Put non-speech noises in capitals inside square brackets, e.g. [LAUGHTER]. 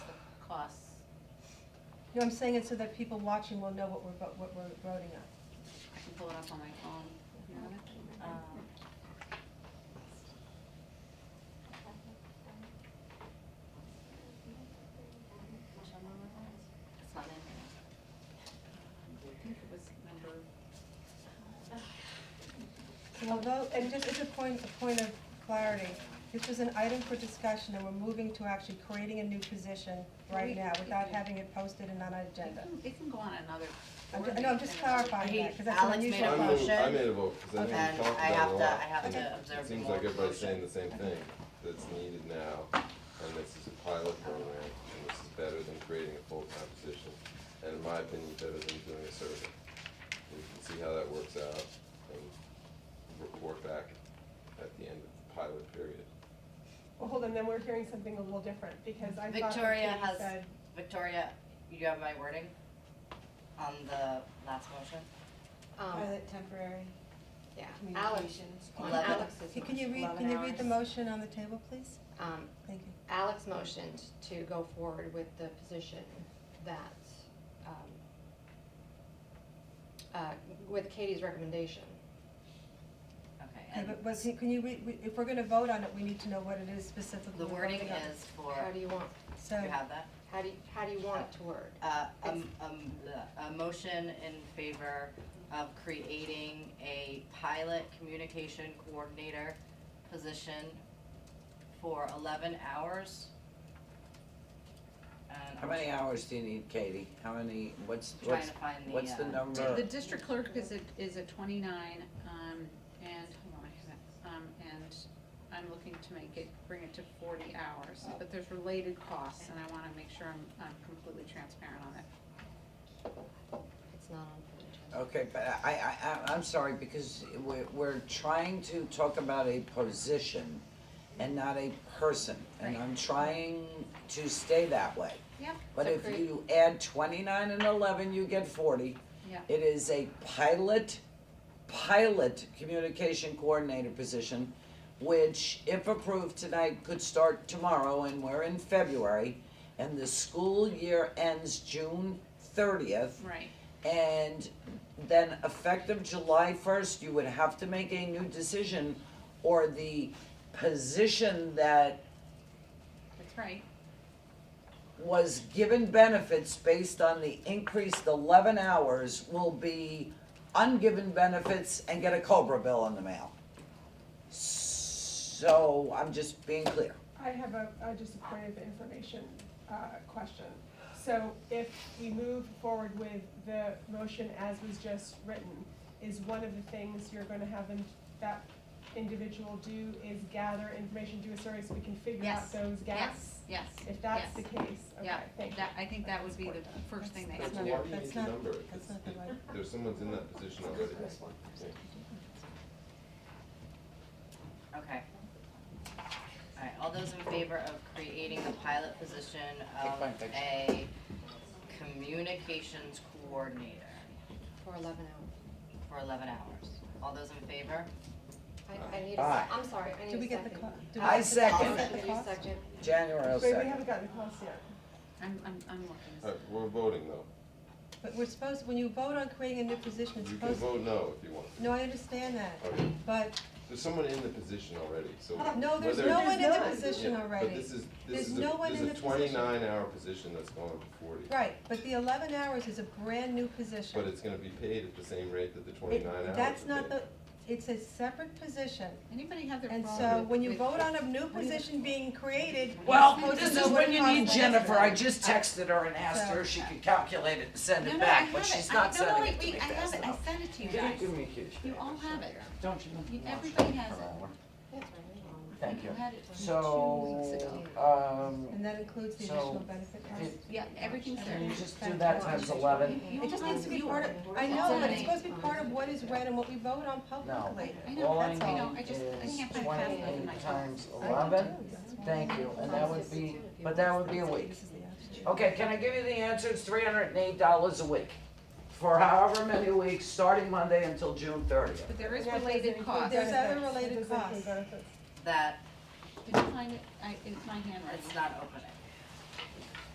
No, I'm saying it so that people watching will know what we're, vo- what we're voting on. I can pull it up on my phone. You want it? Um, which number was that? It's not in there. Um, I think it was number, So we'll vote, and just as a point, a point of clarity, this was an item for discussion, and we're moving to actually creating a new position right now without having it posted and on our it agenda. can, it can go on another. I'm board ju- no, I'm just meeting and another- clarifying that, 'cause that's an Alex made unusual a motion. motion, I made and a vote, because Okay. I know we talked I about it a have to, lot. I have Okay. to observe It the seems like everybody's motion. saying the same thing, that's needed now, and this is a pilot program, and this is better than creating a full-time position, and in my opinion, better than doing a survey. We can see how that works out and report back at the end of the pilot period. Well, hold on, then we're hearing something a little different, because I thought that Victoria Katie has- said, Victoria, you have my wording on the last motion? Um, Pilot temporary yeah, Alex, communications on Eleven. Alex's. Can you read, motion. can you read the Eleven hours. motion on the table, please? um, Thank you. Alex motioned to go forward with the position that, um, uh, with Katie's recommendation. Okay, Okay, and but, but see, can you read, we- if we're gonna vote on it, we need to know what it is specifically. the we're wording voting on. is for, How do you you want, So, have that? how do you, how do you want it to word? Uh, um, um, the- a motion in favor of creating a pilot communication coordinator position for eleven hours. And How many hours do you need, Katie? How many, what's, I'm trying what's, to find the, what's the uh, number? The district clerk is at, is at twenty-nine, um, and, hold on, I have it, um, and I'm looking to make it, bring it to forty hours, but there's related costs, and I wanna make sure I'm, I'm completely transparent on it. It's not on the agenda. Okay, but I, I, I- I'm sorry, because we're, we're trying to talk about a position and not a person. And Right. I'm trying to stay that way. Yeah. But So if create- you add twenty-nine and eleven, you get forty. Yeah. It is a pilot, pilot communication coordinator position, which if approved tonight, could start tomorrow, and we're in February. And the school year ends June thirtieth, Right, and then effective July first, you would have to make a new decision, or the position that that's right, was given benefits based on the increased eleven hours will be ungiven benefits and get a Cobra bill in the mail. So I'm just being clear. I have a, a just a point of information, uh, question. So if we move forward with the motion as was just written, is one of the things you're gonna have in, that individual do is gather information, do a survey so we can figure Yes. out those gaps? yes, yes, If that's the Yes. case, okay, Yeah, thank you. that, I think that would be the first thing that That's you not- Why do you that's need to not- number it? That's not the right. [LAUGHS] There's someone's in that position already. Okay. Alright, all those in favor of creating the pilot position Take my of picture. a communications coordinator For eleven hours. for eleven hours, all those in favor? I, I need a, Aye. se- I'm sorry, I need a second. Do we get the co- do we I get the second. cost? Motion, The you cost? second. January Wait, we second. haven't gotten the cost yet. I'm, I'm, I'm looking. Alright, we're voting though, But we're supposed, when you vote on creating a new position, it's you can supposed, vote Uh, no if you want. no, I understand that, Okay. but, There's someone in the position already, so. [LAUGHS] no, there's whether- no one in the not. position Yeah, already. But this is, There's this is no a, one this in is the a position. twenty-nine hour position that's going to forty. Right, but the eleven hours is a brand new position. But it's gonna be paid at the same rate that the It- twenty-nine hours are That's not paid. the, it's a separate position, Anybody have their and problem so with- when you with- vote on a new position being created, you're Well, supposed to this know is what when it you need costs. Jennifer. I just texted her and asked her if she could calculate it and send No, it no, I back, have but it. she's I- not no, no, sending it wait, to me wait, I have fast it. enough. I sent it to you guys. me a kiss? You all have it. Don't You- you? everybody has it. That's right. Thank you. You had it two weeks So, ago. um, And that includes the So, additional benefit cost. did- Yeah, everything's there. can you just do that times eleven? You It just needs to be all- part of, I Um, it's know, but already- it's supposed to be part of what is read and what we vote on publicly. Oh, I know, All I that's- I know, need I just- I is can't find fast enough in my 28 phone. times I do eleven, too, that's why. thank you, and that would be, but that would be a week. This is the option. Okay, can I give you the answer, it's three hundred and eight dollars a week, for however many weeks, starting Monday until June thirtieth. But there is That doesn't related include costs. There's Did a- you other benefits. That related doesn't include costs. benefits. That find it? I, it's my handwriting. It's not open